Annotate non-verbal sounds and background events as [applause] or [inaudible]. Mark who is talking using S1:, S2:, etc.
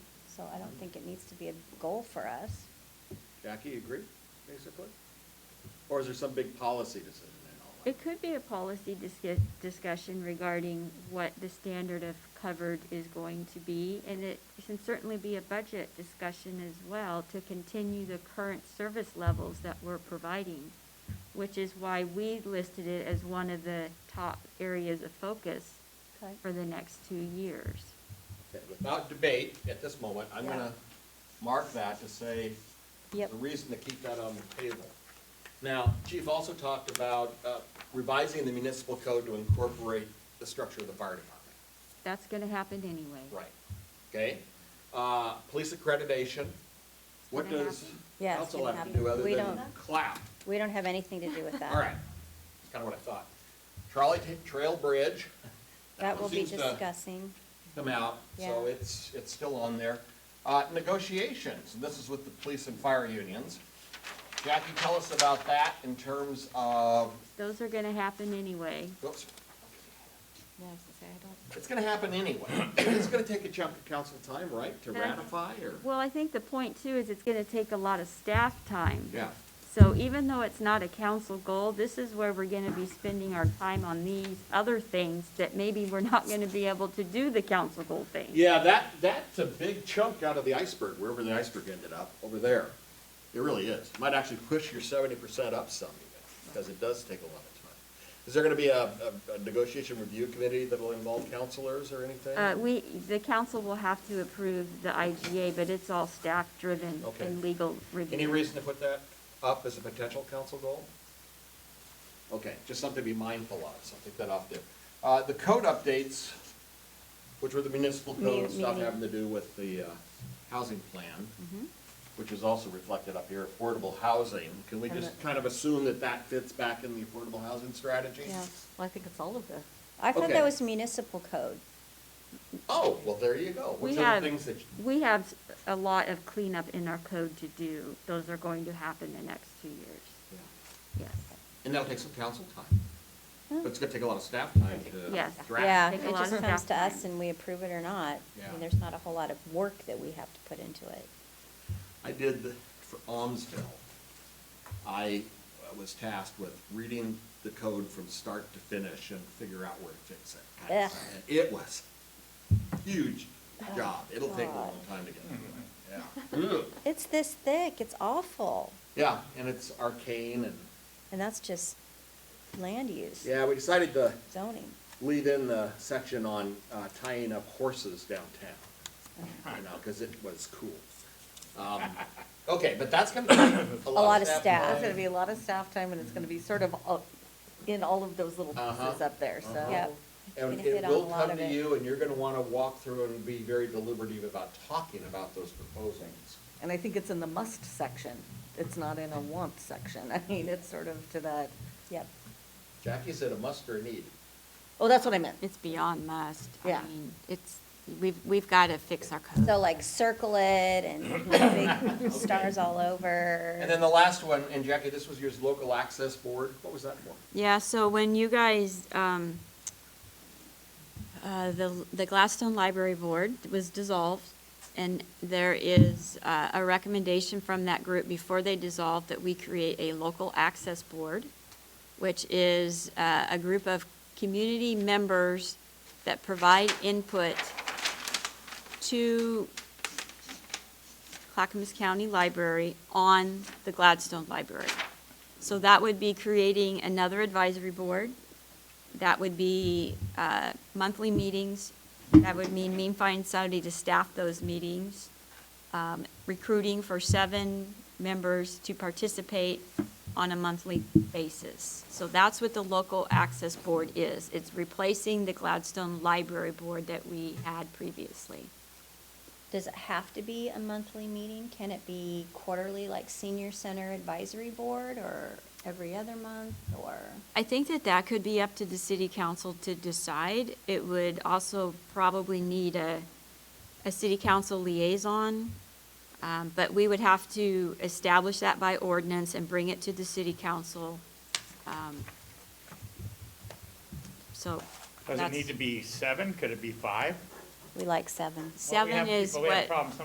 S1: so I don't think it needs to be a goal for us.
S2: Jackie, you agree, basically? Or is there some big policy decision in all that?
S3: It could be a policy discu- discussion regarding what the standard of covered is going to be, and it can certainly be a budget discussion as well to continue the current service levels that we're providing, which is why we listed it as one of the top areas of focus
S1: Okay.
S3: for the next two years.
S2: Okay, Without debate at this moment, I'm
S1: Yeah.
S2: gonna mark that to say the
S1: Yep,
S2: reason to keep that on the table. Now, Chief also talked about uh, revising the municipal code to incorporate the structure of the fire department.
S3: That's gonna happen anyway.
S2: Right, okay? Uh, Police accreditation, what
S3: gonna
S2: does
S3: happen.
S1: Yeah, it's
S2: council
S1: gonna
S2: have to
S1: happen.
S2: do other
S1: We
S2: than
S1: don't-
S2: clap?
S1: we don't have anything to do with that.
S2: All right, that's kind of what I thought. Trolley ta- Trail Bridge.
S1: That
S2: one
S1: will be
S2: seems uh, to
S1: discussing,
S2: Come out, so
S1: Yeah.
S2: it's, it's still on there. Uh, Negotiations, and this is with the police and fire unions. Jackie, tell us about that in terms of,
S3: Those are gonna happen anyway.
S2: whoops,
S3: Yeah, I was gonna say, I don't
S2: it's gonna happen anyway. It's gonna take a chunk of council time, right, to
S3: Yeah.
S2: ratify or?
S3: Well, I think the point too is it's gonna take a lot of staff time.
S2: Yeah.
S3: So even though it's not a council goal, this is where we're gonna be spending our time on these other things that maybe we're not gonna be able to do the council goal thing.
S2: Yeah, that, that's a big chunk out of the iceberg, wherever the iceberg ended up, over there. It really is. Might actually push your seventy percent up some even, because it does take a lot of time. Is there gonna be a, a- a negotiation review committee that'll involve counselors or anything?
S3: Uh, we, the council will have to approve the IGA, but it's all staff-driven
S2: Okay.
S3: and legal
S2: Any
S3: review.
S2: reason to put that up as a potential council goal? Okay, just something to be mindful of, so I'll take that off there. Uh, the code updates, which were the municipal
S1: Mu-
S2: code stuff
S1: meaning-
S2: having to do with the, uh, housing plan, which is also reflected up here, affordable housing. Can we
S1: And
S2: just
S1: the-
S2: kind of assume that that fits back in the affordable housing strategy?
S1: yeah.
S4: Well, I think it's all of the,
S1: I thought
S2: Okay.
S1: that was municipal code.
S2: Oh, well, there you go.
S3: We
S2: Which are
S3: have-
S2: the things that,
S3: We have a lot of cleanup in our code to do. Those are going to happen the next two years,
S2: yeah.
S3: yes.
S2: and that'll take some council time. But it's gonna take a lot of staff time to
S3: Yes.
S2: draft.
S1: Yeah,
S3: Take
S1: it
S3: a lot
S1: just
S3: of
S1: comes to
S3: staff
S1: us
S3: time.
S1: and we approve it or not. I
S2: Yeah.
S1: mean, there's not a whole lot of work that we have to put into it.
S2: I did the- for Almsville. I was tasked with reading the code from start to finish and figure out where to fix it.
S1: Ugh.
S2: And It was huge job. It'll take a
S1: Oh, God.
S2: long time to get through it. Yeah.
S1: It's this thick, it's awful,
S2: Yeah, and it's arcane and,
S1: and that's just land use,
S2: yeah, we decided to
S1: zoning.
S2: leave in the section on uh, tying up horses downtown. You know, because it was cool. Um, Okay, but that's gonna take
S1: A
S2: a
S1: lot of
S2: time.
S1: staff.
S4: it's gonna be a lot of staff time, and it's gonna be sort of all- in all of those little pieces
S2: Uh-huh,
S4: up there, so.
S1: Yep.
S2: And
S1: Gonna
S2: it
S1: hit on a
S2: will
S1: lot
S2: come
S1: of
S2: to
S1: it.
S2: you, and you're gonna wanna walk through and be very deliberative about talking about those proposals.
S4: And I think it's in the must section, it's not in a want section, [laughs] I mean, it's sort of to that,
S1: Yep,
S2: Jackie said a must or a need.
S4: oh, that's what I meant.
S3: It's beyond must.
S4: Yeah.
S3: I mean, it's, we've, we've got to fix our code.
S1: so like circle it and
S2: [laughs]
S1: big stars all
S2: And then
S1: over.
S2: the last one, and Jackie, this was your local access board, what was that for?
S3: Yeah, so when you guys, um, uh, the, the Gladstone Library Board was dissolved, and there is, uh, a recommendation from that group before they dissolved that we create a local access board, which is, uh, a group of community members that provide input to Clackamas County Library on the Gladstone Library. So that would be creating another advisory board. That would be uh, monthly meetings. That would mean me finding somebody to staff those meetings, um, recruiting for seven members to participate on a monthly basis. So that's what the local access board is. It's replacing the Gladstone Library Board that we had previously.
S1: Does it have to be a monthly meeting? Can it be quarterly, like senior center advisory board, or every other month, or?
S3: I think that that could be up to the city council to decide. It would also probably need a, a city council liaison. Um, but we would have to establish that by ordinance and bring it to the city council. Um, So.
S5: Does it
S3: that's-
S5: need to be seven? Could it be five?
S1: We like seven.
S5: Well, we
S3: Seven
S5: have
S3: is
S5: people- we have
S3: what-
S5: problems.